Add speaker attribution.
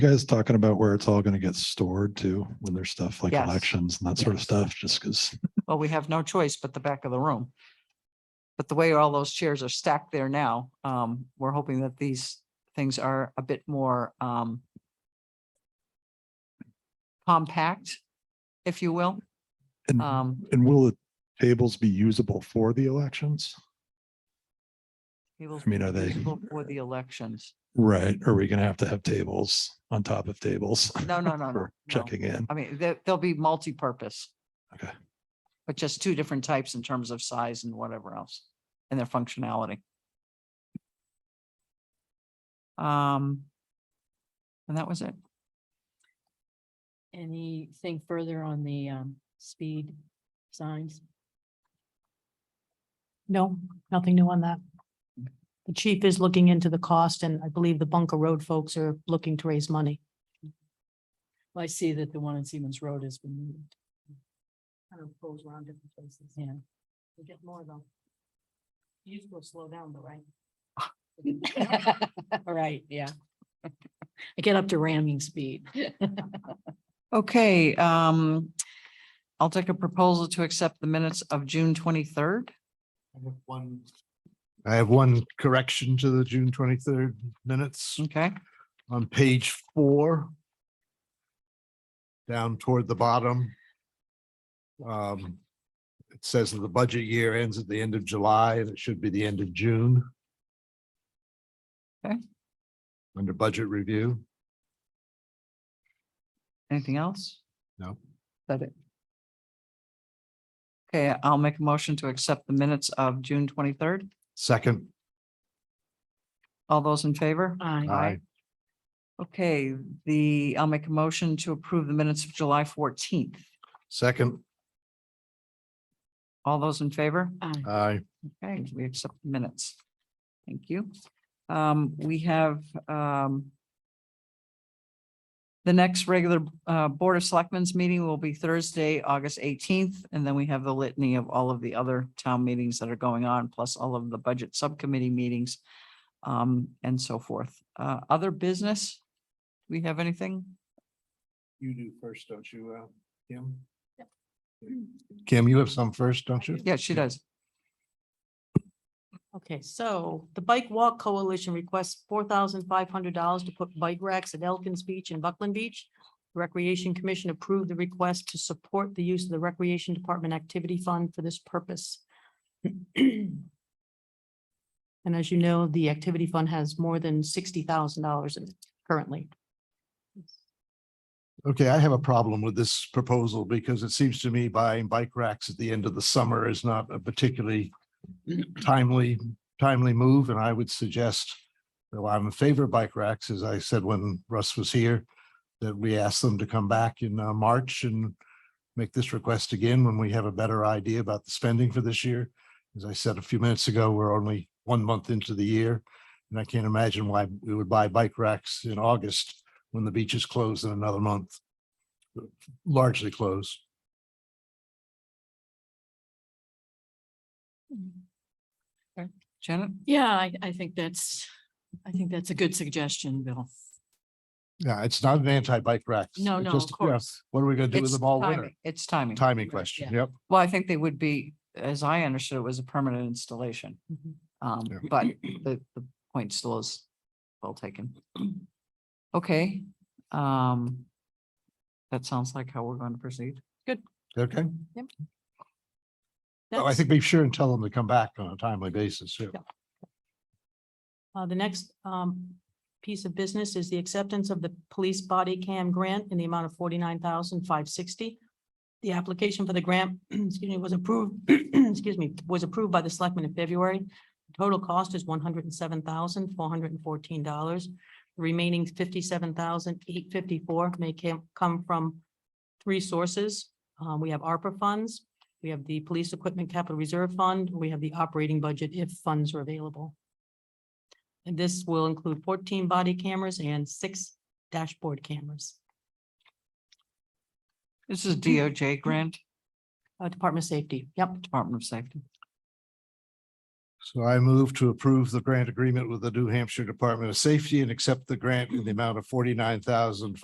Speaker 1: guys talking about where it's all going to get stored too, when there's stuff like
Speaker 2: Yes.
Speaker 1: elections and that sort of stuff, just because,
Speaker 2: Well, we have no choice but the back of the room. But the way all those chairs are stacked there now, um, we're hoping that these things are a bit more, um, compact, if you will.
Speaker 1: and,
Speaker 2: Um,
Speaker 1: and will the tables be usable for the elections?
Speaker 2: I
Speaker 1: I mean, are they-
Speaker 2: For the elections.
Speaker 1: Right, are we gonna have to have tables on top of tables?
Speaker 2: No, no, no, no,
Speaker 1: For
Speaker 2: no.
Speaker 1: checking in,
Speaker 2: I mean, they, they'll be multi-purpose.
Speaker 1: Okay.
Speaker 2: But just two different types in terms of size and whatever else and their functionality. Um. And that was it.
Speaker 3: Anything further on the um speed signs?
Speaker 4: No, nothing new on that. The chief is looking into the cost and I believe the Bunker Road folks are looking to raise money.
Speaker 3: Well, I see that the one in Siemens Road has been moved. Kind of goes around different places. Yeah.
Speaker 4: We get more though. You will slow down though, right?
Speaker 3: Right, yeah. I get up to ramming speed.
Speaker 2: Okay, um. I'll take a proposal to accept the minutes of June twenty-third.
Speaker 5: I have one. I have one correction to the June twenty-third minutes
Speaker 2: Okay,
Speaker 5: on page four. Down toward the bottom. Um, it says that the budget year ends at the end of July and it should be the end of June.
Speaker 2: Okay.
Speaker 5: Under budget review,
Speaker 2: anything else?
Speaker 5: no,
Speaker 2: That it. Okay, I'll make a motion to accept the minutes of June twenty-third.
Speaker 5: second,
Speaker 2: All those in favor?
Speaker 3: I
Speaker 5: aye,
Speaker 2: Okay, the, I'll make a motion to approve the minutes of July fourteenth.
Speaker 5: second,
Speaker 2: All those in favor?
Speaker 4: Um,
Speaker 5: aye,
Speaker 2: Okay, we accept the minutes. Thank you. Um, we have, um, the next regular, uh, Board of Selectmen's meeting will be Thursday, August eighteenth, and then we have the litany of all of the other town meetings that are going on, plus all of the budget subcommittee meetings, um, and so forth. Uh, other business? Do we have anything?
Speaker 5: You do first, don't you, uh, Kim? Kim, you have some first, don't you?
Speaker 2: Yeah, she does.
Speaker 4: Okay, so the Bike Walk Coalition requests four thousand five hundred dollars to put bike racks at Elkins Beach and Buckland Beach. Recreation Commission approved the request to support the use of the Recreation Department Activity Fund for this purpose. And as you know, the Activity Fund has more than sixty thousand dollars in it currently.
Speaker 5: Okay, I have a problem with this proposal because it seems to me buying bike racks at the end of the summer is not a particularly timely, timely move, and I would suggest, though I'm in favor of bike racks, as I said when Russ was here, that we ask them to come back in uh, March and make this request again when we have a better idea about the spending for this year. As I said a few minutes ago, we're only one month into the year, and I can't imagine why we would buy bike racks in August when the beach is closed in another month largely closed.
Speaker 2: Janet?
Speaker 3: Yeah, I I think that's, I think that's a good suggestion, Bill.
Speaker 5: Yeah, it's not an anti-bike rack.
Speaker 3: No,
Speaker 5: It's
Speaker 3: no,
Speaker 5: just,
Speaker 3: of
Speaker 5: yeah,
Speaker 3: course.
Speaker 5: What are we gonna do with
Speaker 2: It's
Speaker 5: them all winter?
Speaker 2: timing. It's timing.
Speaker 5: Timing question,
Speaker 3: yeah.
Speaker 5: yep.
Speaker 2: Well, I think they would be, as I understood, it was a permanent installation.
Speaker 3: Mhm.
Speaker 2: Um,
Speaker 5: Yeah.
Speaker 2: but the, the point still is well taken. Okay, um. That sounds like how we're going to proceed.
Speaker 5: Okay, Well, Oh, I
Speaker 4: That's-
Speaker 5: think be sure and tell them to come back on a timely basis. yeah.
Speaker 4: Uh, the next, um, piece of business is the acceptance of the police body cam grant in the amount of forty-nine thousand five sixty. The application for the grant, excuse me, was approved, excuse me, was approved by the selectmen in February. The Total cost is one hundred and seven thousand four hundred and fourteen dollars. The Remaining fifty-seven thousand eight fifty-four may cam- come from three sources. Uh, we have ARPA funds, we have the Police Equipment Capital Reserve Fund, we have the operating budget if funds are available. And this will include fourteen body cameras and six dashboard cameras.
Speaker 2: This is DOJ grant,
Speaker 4: Uh, Department of Safety, yep.
Speaker 2: Department of Safety.
Speaker 5: So I move to approve the grant agreement with the New Hampshire Department of Safety and accept the grant in the amount of forty-nine thousand